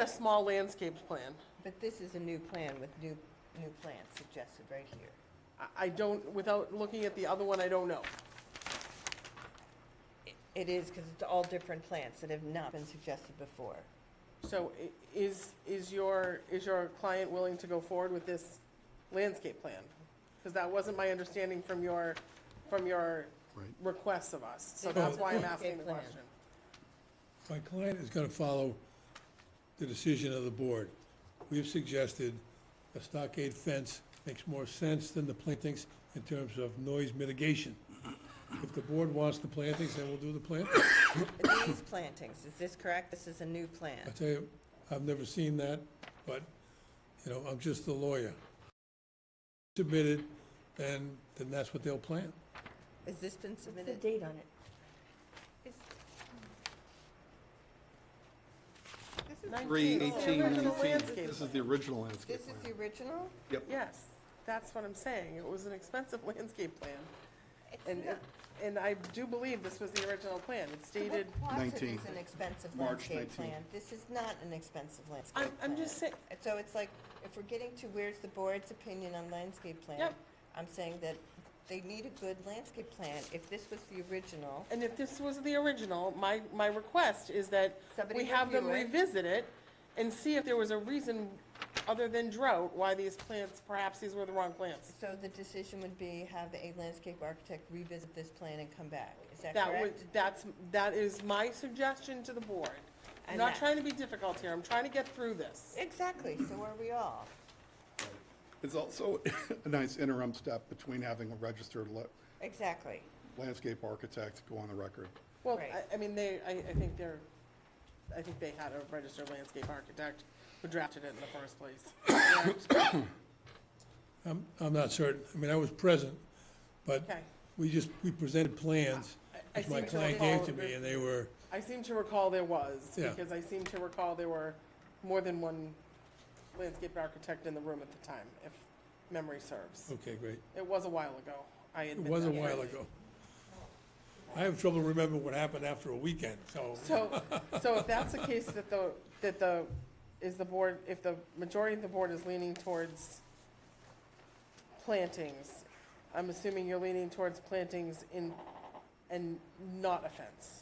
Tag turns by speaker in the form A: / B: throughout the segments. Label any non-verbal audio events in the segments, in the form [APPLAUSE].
A: a small landscapes plan.
B: But this is a new plan with new, new plants suggested right here.
A: I- I don't, without looking at the other one, I don't know.
B: It is, because it's all different plants that have not been suggested before.
A: So i- is, is your, is your client willing to go forward with this landscape plan? Because that wasn't my understanding from your, from your
C: Right.
A: requests of us. So
B: The
A: that's why I'm asking the
B: landscape plan.
A: question.
C: My client is gonna follow the decision of the board. We've suggested a stockade fence makes more sense than the plantings in terms of noise mitigation. If the board wants the plantings, then we'll do the plantings.
B: But These [COUGHS] plantings, is this correct? This is a new plan.
C: I tell you, I've never seen that, but, you know, I'm just a lawyer. Submitted, then, then that's what they'll plant.
B: Has this been
D: What's the
B: submitted?
D: date on it?
E: Three
A: 19. It's the
E: eighteen
A: original
E: nineteen,
A: landscape
E: this is
A: plan.
E: the original landscape
B: This is the
E: plan.
B: original?
A: [LAUGHS] Yes, that's what I'm saying. It was an expensive [LAUGHS] landscape plan. And, it- and I do believe this was the original plan. It's dated,
B: What Quonset
E: 19.
B: is an expensive
E: March
B: landscape
E: 19.
B: plan. This is not an expensive landscape
A: I'm,
B: plan.
A: I'm just saying,
B: And So it's like, if we're getting to where's the board's opinion on landscape plan?
A: Yep.
B: I'm saying that they need a good landscape plan. If this was the original,
A: And if this was the original, my, my request is that
B: Somebody
A: we have them
B: review it.
A: revisit it and see if there was a reason other than drought why these plants, perhaps these were the wrong plants.
B: so the decision would be have a landscape architect revisit this plan and come back. Is that
A: That would,
B: correct?
A: that's, that is my suggestion to the board. I'm
B: And
A: not
B: that-
A: trying to be difficult here, I'm trying to get through this.
B: Exactly, so are we all.
E: It's also a nice interim step between having a registered la-
B: Exactly.
E: landscape architect go on the record.
A: Well,
B: Right.
A: I, I mean, they, I, I think they're, I think they had a registered landscape architect who drafted it in the first
B: [COUGHS]
A: place. Correct?
C: I'm, I'm not certain. I mean, I was present, but
A: Okay.
C: we just, we presented plans
A: I
C: which my
A: seem to
C: client
A: recall
C: gave to
A: that-
C: me, and they were,
A: I seem to recall there was,
C: Yeah.
A: because I seem to recall there were more than one landscape architect in the room at the time, if memory serves.
C: okay, great.
A: It was a while ago, I
C: Oh. It
A: admit
C: was a
A: that.
C: while ago. I have trouble remembering what happened after a weekend, so, [LAUGHS]
A: So, so if that's the case, that the, that the, is the board, if the majority of the board is leaning towards plantings, I'm assuming you're leaning towards plantings in, and not a fence.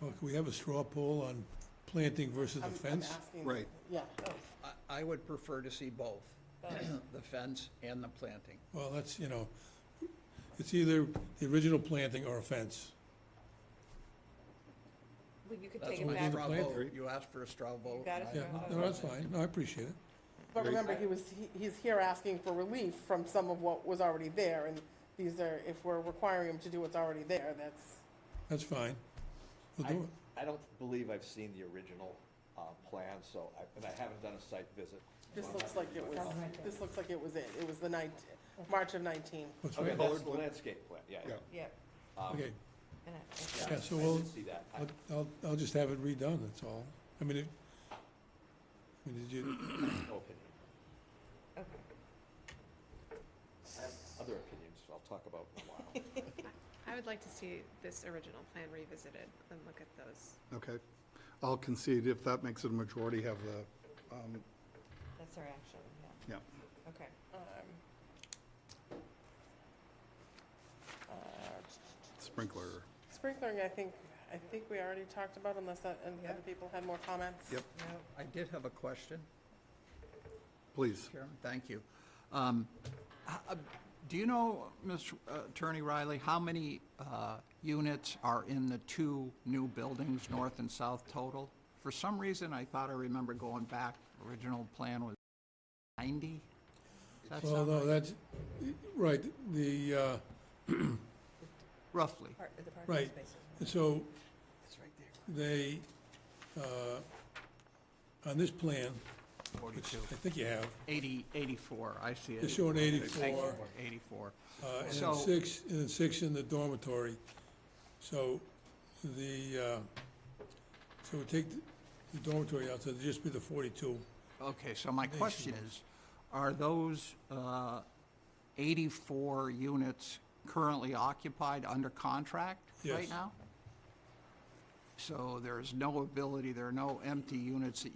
C: well, Oh, can we have a straw poll on planting versus a
A: I'm- I'm
C: fence?
A: asking-
E: Right.
A: Yeah,
F: I- I would prefer to see both, [CLEARS THROAT] the fence and the planting.
C: Well, that's, you know, it's either the original planting or a fence.
D: Well, you could
F: That's
D: take
F: my
D: it back.
F: straw
C: The planting.
F: vote. You asked for a straw vote.
B: got
F: and
B: a
F: I-
C: Yeah, no, that's fine. No, I appreciate it.
A: But
E: Right.
A: remember, he was, he- he's here asking for relief from some of what was already there, and these are, if we're requiring him to do what's already there, that's,
C: That's fine. We'll
G: I,
C: do it.
G: I don't believe I've seen the original, uh, plan, so I, and I haven't done a site visit.
A: this
G: so I'm
A: looks
G: not
A: like
G: gonna
A: it
G: do
A: was,
G: that.
A: this looks like it was it. It was the nineteen, March of nineteen.
C: What's
G: Okay,
C: right?
G: that's the landscape plan, yeah, yeah.
E: Yeah.
B: Yep.
G: Um,
C: Okay,
B: And I-
G: yeah,
C: Yeah, so
G: I
C: we'll-
G: did see that. I-
C: I'll- I'll, I'll just have it redone, that's all. I mean, it, I mean, did you,
G: No opinion.
B: Okay.
G: I have other opinions I'll talk about in a while.
H: I would like to see this original plan revisited and look at those.
E: Okay. I'll concede if that makes it a majority, have the, um,
B: That's our action, yeah,
E: yeah.
B: okay.
E: Sprinkler.
A: Sprinkling, Uh, I think, I think we already talked about unless that, and
B: Yeah.
A: other people had more comments.
E: Yep.
B: No,
F: I did have a question,
E: Please.
F: Chairman, thank you. Um, h- uh, Do you know, Ms. Attorney Riley, how many uh, units are in the two new buildings, north and south total? For some reason, I thought I remember going back, original plan was 90? Does that
C: well,
F: sound
C: no,
F: right?
C: that's, right, the, uh,
F: Roughly.
B: part, the parking
C: Right.
B: spaces.
C: And so
F: It's right there.
C: they, uh, on this plan, which
F: 42.
C: I think you have,
F: 80, 84, I see it.
C: they're showing
F: Thank you,
C: eighty-four,
F: 84.
C: uh, and then
F: So-
C: six, and then six in the dormitory. So the, uh, so we take the- the dormitory out, so it'd just be the forty-two.
F: Okay, so my question is, are those uh, 84 units currently occupied under contract
C: Yes.
F: right now? So there's no ability, there are no empty units that you